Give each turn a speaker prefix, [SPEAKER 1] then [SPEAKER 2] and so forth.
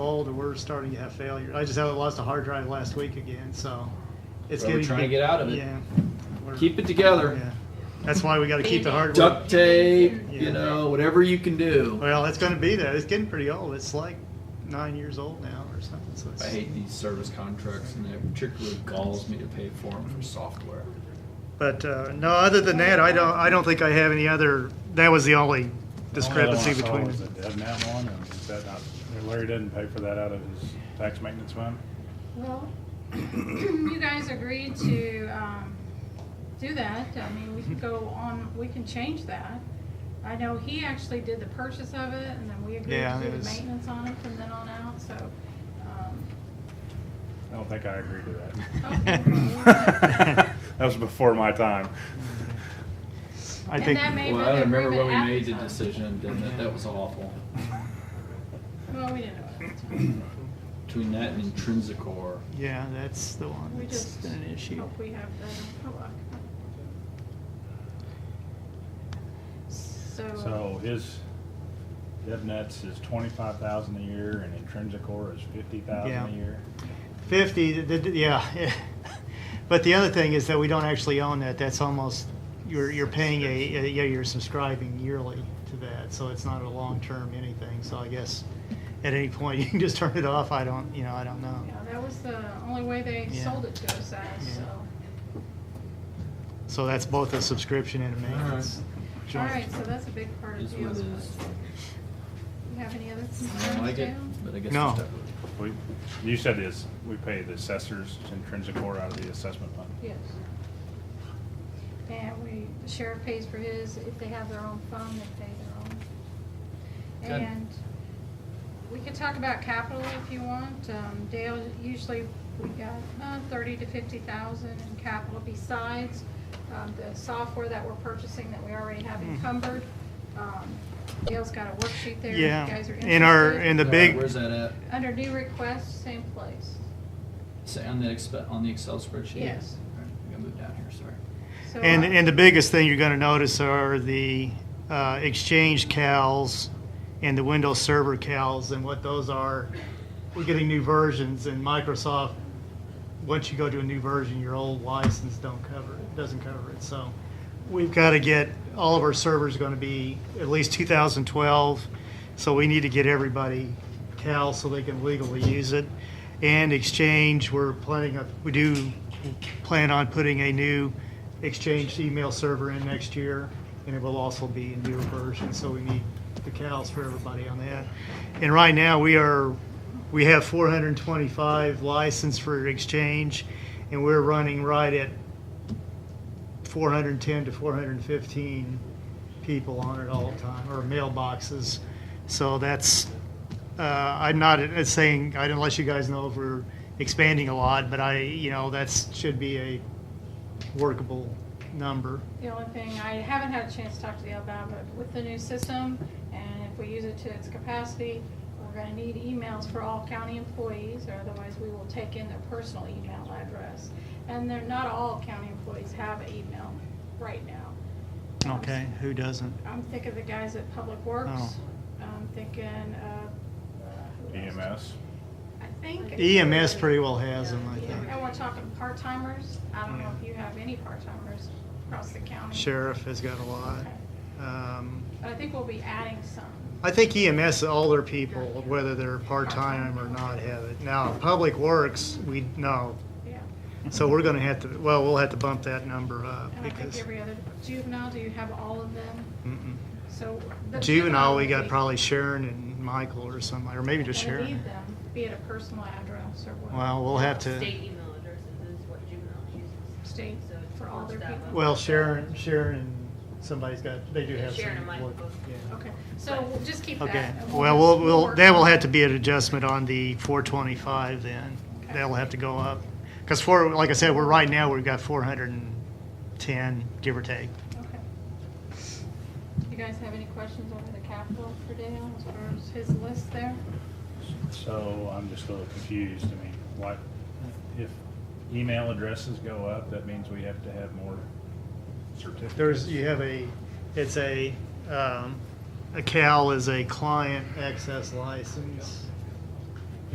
[SPEAKER 1] old or we're starting to have failure. I just had lost a hard drive last week again, so it's
[SPEAKER 2] Well, we're
[SPEAKER 1] getting
[SPEAKER 2] trying to get out of it.
[SPEAKER 1] Yeah, We're-
[SPEAKER 2] Keep it together.
[SPEAKER 1] Yeah, that's why we got to keep the hardware.
[SPEAKER 2] Duct tape,
[SPEAKER 1] Yeah.
[SPEAKER 2] you know, whatever you can do.
[SPEAKER 1] Well, it's going to be that. It's getting pretty old. It's like nine years old now or something. So it's,
[SPEAKER 2] I hate these service contracts, and it particularly galls me to pay for them for software.
[SPEAKER 1] But uh, no, other than that, I don't. I don't think I have any other. That was the only discrepancy
[SPEAKER 3] Only other
[SPEAKER 1] between.
[SPEAKER 3] one I saw was the DevNet one, and is that not, Larry doesn't pay for that out of his tax maintenance fund?
[SPEAKER 4] Well, you guys agreed to um, do that. I mean, we can go on, we can change that. I know he actually did the purchase of it, and then we agreed
[SPEAKER 1] Yeah,
[SPEAKER 4] to do
[SPEAKER 1] it
[SPEAKER 4] the
[SPEAKER 1] was-
[SPEAKER 4] maintenance on it from then on out, so. um,
[SPEAKER 3] I don't think I agree to
[SPEAKER 4] okay, well,
[SPEAKER 3] that. That was before my time.
[SPEAKER 1] I
[SPEAKER 4] And
[SPEAKER 1] think.
[SPEAKER 4] that may- Maybe
[SPEAKER 2] Well, I
[SPEAKER 4] they
[SPEAKER 2] remember
[SPEAKER 4] prove
[SPEAKER 2] when
[SPEAKER 4] it
[SPEAKER 2] we
[SPEAKER 4] at
[SPEAKER 2] made
[SPEAKER 4] the
[SPEAKER 2] the
[SPEAKER 4] time.
[SPEAKER 2] decision, didn't it? That was awful.
[SPEAKER 4] Well, we didn't know at the time.
[SPEAKER 2] Between that and Intrinsicore,
[SPEAKER 1] yeah, that's the one.
[SPEAKER 4] We
[SPEAKER 1] That's
[SPEAKER 4] just
[SPEAKER 1] an issue.
[SPEAKER 4] hope we have that in luck. So,
[SPEAKER 3] So his, DevNet's is twenty-five thousand a year, and Intrinsic Core is fifty
[SPEAKER 1] Yeah.
[SPEAKER 3] thousand a year.
[SPEAKER 1] Fifty. The, the, yeah. but the other thing is that we don't actually own that. That's almost you're you're paying a, a yeah you're subscribing yearly to that, so it's not a long term anything. So I guess at any point you can just turn it off. I don't. You know. I don't know.
[SPEAKER 4] yeah, that was the only way they
[SPEAKER 1] Yeah.
[SPEAKER 4] sold it to us, as,
[SPEAKER 1] Yeah.
[SPEAKER 4] so.
[SPEAKER 1] So that's both a subscription and a maintenance.
[SPEAKER 4] All
[SPEAKER 1] joint.
[SPEAKER 4] right, so that's a big part
[SPEAKER 2] is
[SPEAKER 4] of
[SPEAKER 2] what
[SPEAKER 4] deals.
[SPEAKER 2] it
[SPEAKER 4] You
[SPEAKER 2] is.
[SPEAKER 4] have any other
[SPEAKER 2] I don't
[SPEAKER 4] concerns,
[SPEAKER 2] like it,
[SPEAKER 4] Dan?
[SPEAKER 2] but I guess
[SPEAKER 1] No.
[SPEAKER 2] we're stuck with it.
[SPEAKER 3] We, you said is, we pay the assessors, Intrinsic Core out of the assessment fund.
[SPEAKER 4] Yes. And we, the sheriff pays for his, if they have their own phone, they pay their
[SPEAKER 2] Good.
[SPEAKER 4] own. And we could talk about capital if you want. Um, Dale, usually we got uh, thirty to fifty thousand in capital besides um, the software that we're purchasing that we already have
[SPEAKER 1] Hmm.
[SPEAKER 4] encumbered. Um, Dale's got a worksheet there. if you
[SPEAKER 1] Yeah.
[SPEAKER 4] guys are
[SPEAKER 1] In our
[SPEAKER 4] interested.
[SPEAKER 1] in the
[SPEAKER 2] All right,
[SPEAKER 1] big
[SPEAKER 2] Where's that at?
[SPEAKER 4] Under new requests, same place.
[SPEAKER 2] Say on the expe- on the Excel spreadsheet?
[SPEAKER 4] Yes.
[SPEAKER 2] All right, I'm gonna move down here, sorry.
[SPEAKER 4] So,
[SPEAKER 1] And,
[SPEAKER 4] uh,
[SPEAKER 1] and the biggest thing you're gonna notice are the uh, Exchange cals and the Windows Server cals, and what those are. We're getting new versions, and Microsoft, once you go to a new version, your old license don't cover it, doesn't cover it, so. We've gotta get, all of our servers gonna be at least 2012, so we need to get everybody cal so they can legally use it. And Exchange, we're planning, on- we do plan on putting a new Exchange email server in next year, and it will also be a newer version, so we need the cows for everybody on that. And right now, we are, we have 425 licensed for Exchange, and we're running right at 410 to 415 people on it all the time, or mailboxes. So that's, uh, I'm not uh, saying, I didn't let you guys know if we're expanding a lot, but I, you know, that's, should be a workable number.
[SPEAKER 4] The only thing, I haven't had a chance to talk to Dale about, but with the new system, and if we use it to its capacity, we're gonna need emails for all county employees, or otherwise we will take in their personal email address. And they're, not all county employees have email right now. Um,
[SPEAKER 1] Okay, who doesn't?
[SPEAKER 4] I'm thinking the guys at Public
[SPEAKER 1] Oh.
[SPEAKER 4] Works, I'm thinking, uh. who
[SPEAKER 3] E
[SPEAKER 4] else?
[SPEAKER 3] EMS,
[SPEAKER 4] I
[SPEAKER 1] E
[SPEAKER 4] think.
[SPEAKER 1] EMS pretty well has them, I
[SPEAKER 4] Yeah,
[SPEAKER 1] think.
[SPEAKER 4] And we're talking part-timers, I don't know if you have any part-timers across the county.
[SPEAKER 1] Sheriff has got a lot.
[SPEAKER 4] Okay.
[SPEAKER 1] Um,
[SPEAKER 4] But I think we'll be adding some.
[SPEAKER 1] I think E EMS, all their people, whether they're part-time or not, have it. Now, Public Works, we, no.
[SPEAKER 4] Yeah,
[SPEAKER 1] So we're gonna have to, well, we'll have to bump that number up
[SPEAKER 4] and I think
[SPEAKER 1] because.
[SPEAKER 4] every other, juvenile, do you have all of them?
[SPEAKER 1] Mm-mm.
[SPEAKER 4] So. the
[SPEAKER 1] Juvenile, we got
[SPEAKER 4] would
[SPEAKER 1] probably Sharon and Michael or somebody, or maybe
[SPEAKER 4] be-
[SPEAKER 1] just
[SPEAKER 4] gonna
[SPEAKER 1] Sharon.
[SPEAKER 4] need them, Be it a personal address or what.
[SPEAKER 1] Well, we'll have to,
[SPEAKER 5] State email addresses is what juvenile uses.
[SPEAKER 4] State
[SPEAKER 5] So it's
[SPEAKER 4] for all their
[SPEAKER 5] that
[SPEAKER 4] people.
[SPEAKER 5] one.
[SPEAKER 1] well, Sharon, Sharon and somebody's got, they do
[SPEAKER 5] Yeah,
[SPEAKER 1] have some.
[SPEAKER 5] Sharon and Michael
[SPEAKER 1] work,
[SPEAKER 5] both.
[SPEAKER 1] yeah.
[SPEAKER 4] Okay, so we'll just keep that.
[SPEAKER 1] Okay,
[SPEAKER 4] and
[SPEAKER 1] well, we'll,
[SPEAKER 4] just-
[SPEAKER 1] we'll,
[SPEAKER 4] work
[SPEAKER 1] that will
[SPEAKER 4] on-
[SPEAKER 1] have to be an adjustment on the four twenty-five then.
[SPEAKER 4] Okay.
[SPEAKER 1] That'll have to go up. Because for, like I said, we're, right now, we've got four hundred and ten, give or take.
[SPEAKER 4] Okay. You guys have any questions over the capital for Dale as far as his list there?
[SPEAKER 3] so I'm just a little confused, I mean, why, if email addresses go up, that means we have to have more certificates?
[SPEAKER 1] There's, you have a, it's a, um, a CAL is a client access license.